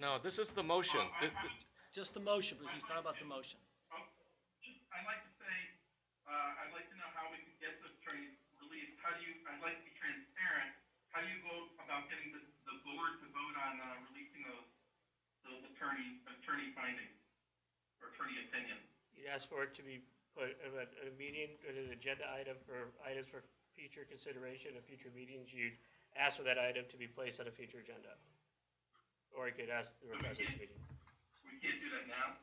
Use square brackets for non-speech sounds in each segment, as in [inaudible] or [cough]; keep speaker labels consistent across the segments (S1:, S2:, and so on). S1: No, this is the motion.
S2: Oh, I-
S1: Th-
S2: I-
S1: th-
S3: Just the motion, because he's talking about the motion.
S2: Um, just, I'd like to say, uh, I'd like to know how we can get this train released. How do you, I'd like to be transparent. How do you go about getting the, the board to vote on, uh, releasing those, those attorney, attorney findings? Or attorney opinions?
S4: You'd ask for it to be put at a, at a meeting, at an agenda item for items for future consideration of future meetings. You'd ask for that item to be placed on a future agenda. Or you could ask the request this meeting.
S2: We can't do that now.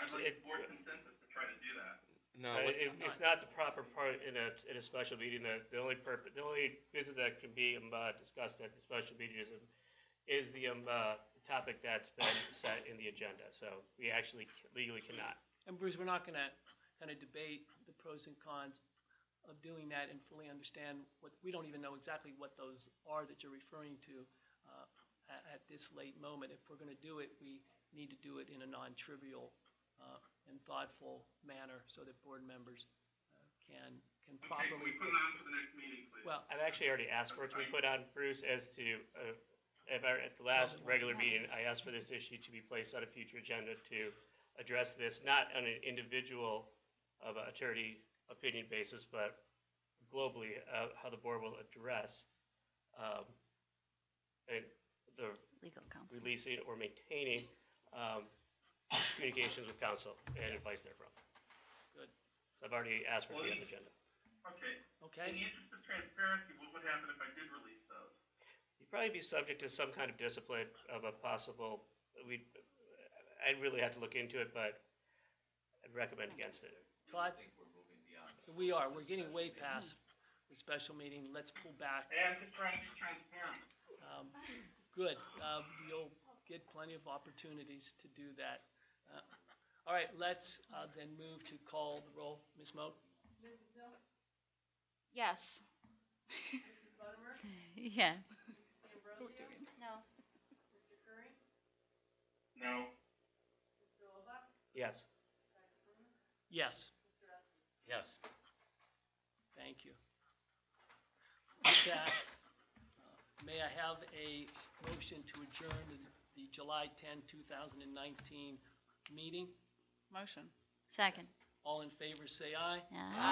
S2: I'd like
S4: It-
S2: board consensus to try to do that.
S1: No,
S4: Uh,
S1: what-
S4: it, it's not the proper part in a, in a special meeting, the, the only purpose, the only business that can be, um, uh, discussed at the special meeting is, um, is the, um, uh, topic that's been set in the agenda, so we actually legally cannot.
S3: And Bruce, we're not gonna kind of debate the pros and cons of doing that and fully understand what, we don't even know exactly what those are that you're referring to uh, at, at this late moment. If we're gonna do it, we need to do it in a non-trivial uh, and thoughtful manner so that board members uh, can, can
S2: Okay, can
S3: properly,
S2: we put it on for the next meeting, please?
S3: well,
S4: I've actually already asked for it to be put on, Bruce, as to, uh, at our, at the last regular meeting, I asked for this issue to be placed on a future agenda to address this, not on an individual of a attorney opinion basis, but globally, uh, how the board will address, um, and the
S5: legal counsel.
S4: releasing or maintaining, um, communications with council and advice therefrom.
S3: Good.
S4: I've already asked for it to be on the agenda.
S2: Okay.
S3: okay?
S2: In the interest of transparency, what would happen if I did release those?
S4: You'd probably be subject to some kind of discipline of a possible, we, I'd really have to look into it, but I'd recommend against it.
S3: Todd,
S6: think we're moving beyond that.
S3: we are, we're getting way past the special meeting. Let's pull back.
S2: Hey, I'm just trying to be transparent.
S3: Um, Good, Um, you'll get plenty of opportunities to do that. Uh, All right, let's uh, then move to call the roll. Ms. Moak?
S5: Yes. [laughs] Yeah. No.
S2: No.
S4: Yes,
S3: Yes,
S1: yes.
S3: thank you. With that, uh, may I have a motion to adjourn the- the July 10, 2019 meeting?
S7: Motion.
S5: Second.
S3: All in favor, say aye.
S5: Yeah.